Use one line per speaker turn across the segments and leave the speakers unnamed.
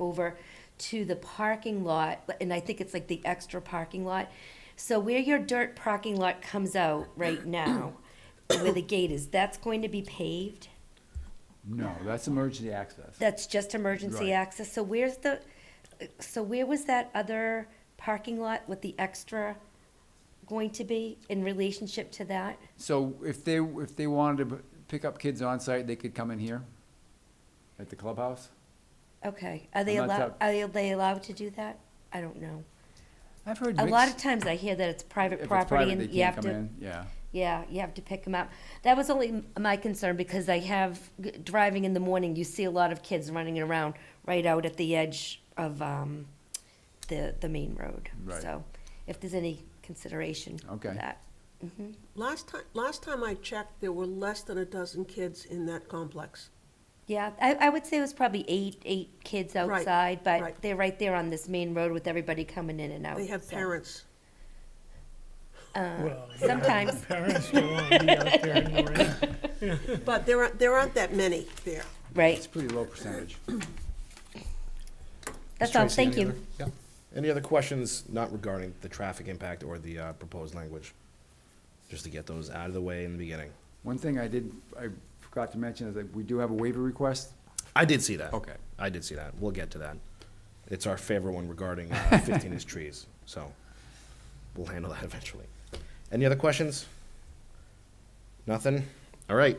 over to the parking lot, and I think it's like the extra parking lot. So where your dirt parking lot comes out right now, where the gate is, that's going to be paved?
No, that's emergency access.
That's just emergency
Right.
access, so where's the, so where was that other parking lot with the extra going to be in relationship to that?
So if they, if they wanted to b- pick up kids on site, they could come in here at the clubhouse?
Okay, are they
I'm not
allowed, are
sub-
they allowed to do that? I don't know.
I've heard
A lot of
mixed,
times I hear that it's
if
private
it's
property
private, they
and you
can't
have
come
to,
in, yeah.
yeah, you have to pick them up. That was only m- my concern because I have, g- driving in the morning, you see a lot of kids running around right out at the edge of, um, the, the main road.
Right.
So if there's any consideration for
Okay.
that.
Last time, last time I checked, there were less than a dozen kids in that complex.
Yeah, I, I would say it was probably eight, eight kids
Right,
outside, but
right.
they're right there on this main road with everybody coming in and out.
They have
so.
parents.
Well, yeah,
Sometimes,
Parents don't want to be out there in the rain.
But there aren't, there aren't that many there.
It's
right,
pretty low percentage.
that's all,
Tracy,
thank
any
you.
other- yeah. Any other questions not regarding the traffic impact or the uh, proposed language? Just to get those out of the way in the beginning.
One thing I did, I forgot to mention is that we do have a waiver request.
I did see that.
Okay.
I did see that. We'll get to that. It's our favorite one regarding uh, 15 inch trees, so we'll handle that eventually. Any other questions? Nothing? All right.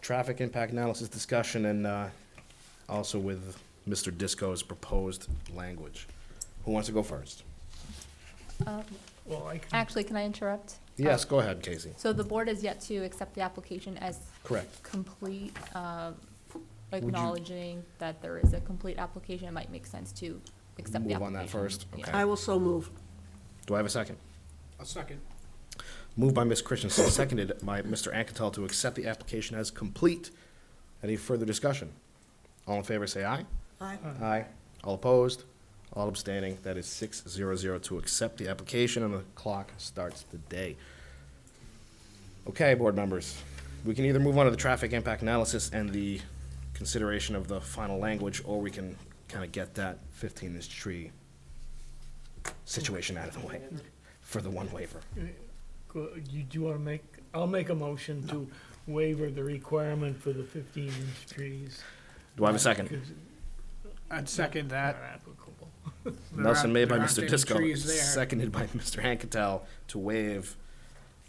Traffic impact analysis discussion and uh, also with Mr. Disco's proposed language. Who wants to go first?
Well, I can,
Actually, can I interrupt?
Yes, go ahead, Casey.
So the board has yet to accept the application as
Correct.
complete, uh, acknowledging that there is a complete application. It might make sense to accept the application.
Move on that first,
Yeah.
okay.
I will so move.
Do I have a second? A second. Moved by Ms. Christensen, seconded by Mr. Anketell to accept the application as complete. Any further discussion? All in favor, say aye.
Aye.
Aye. All opposed? All abstaining? That is six zero zero to accept the application, and the clock starts the day. Okay, board members, we can either move on to the traffic impact analysis and the consideration of the final language, or we can kind of get that fifteen-inch tree situation out of the way for the one waiver.
go- you do want to make, I'll make a motion to waiver the requirement for the fifteen inch trees.
Do I have a second?
Because
I'd second
they're
that.
applicable.
Nelson made by
There aren't
Mr.
any
Disco,
trees there.
seconded by Mr. Anketell to waive,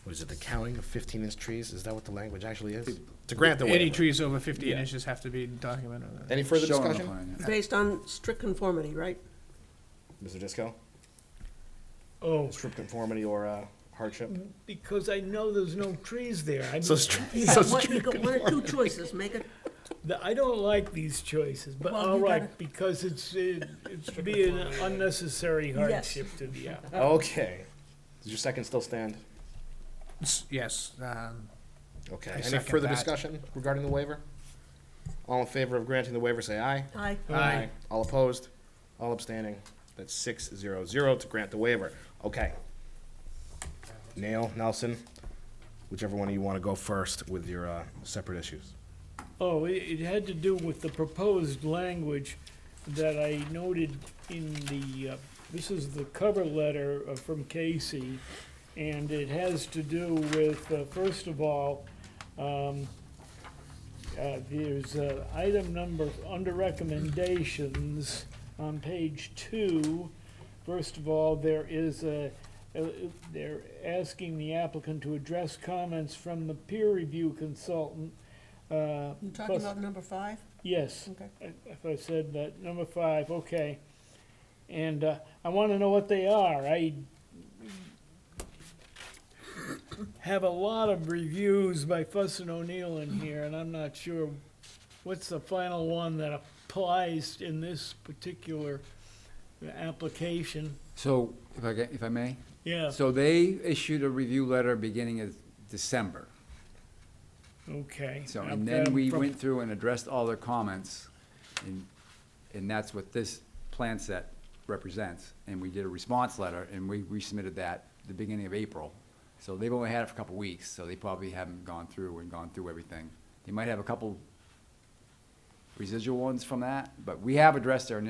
what is it, the counting of fifteen inch trees? Is that what the language actually is? To grant the
Any
waiver.
trees over fifteen
Yeah.
inches have to be documented. on that.
Any further
Show on the
discussion?
plan, yeah.
Based on strict conformity, right?
Mr. Disco?
Oh,
Strip conformity or uh, hardship?
because I know there's no trees there. I,
So,
mean,
str-
You
so
got one-
str-
you got one or two choices, make it,
the- I don't like these choices, but
Well,
all
you
right, because it's, it- it's be an unnecessary hardship to the, app-
okay. Does your second still stand?
S- Yes, um,
Okay.
I
Any
second
further
that.
discussion regarding the waiver? All in favor of granting the waiver, say aye.
aye.
Aye.
All opposed? All abstaining? That's six zero zero to grant the waiver. Okay. Nail, Nelson, whichever one of you want to go first with your uh, separate issues.
Oh, it, it had to do with the proposed language that I noted in the, uh, this is the cover letter uh, from Casey, and it has to do with, uh, first of all, um, uh, there's, uh, item number, under recommendations, on page two. First of all, there is a, uh, they're asking the applicant to address comments from the peer review consultant, uh,
You talking
plus-
about number five?
Yes,
Okay.
I- if I said that, number five, okay. And uh, I want to know what they are. I have a lot of reviews by Fuss and O'Neill in here, and I'm not sure what's the final one that applies in this particular application.
So, if I, ca- if I may?
Yeah,
So they issued a review letter beginning of December.
okay.
So,
I've
and
got
then
'em
we
from-
went through and addressed all their comments, and, and that's what this plan set represents. And we did a response letter, and we resubmitted that the beginning of April. So they've only had it for a couple of weeks, so they probably haven't gone through and gone through everything. They might have a couple residual ones from that, but we have addressed their initial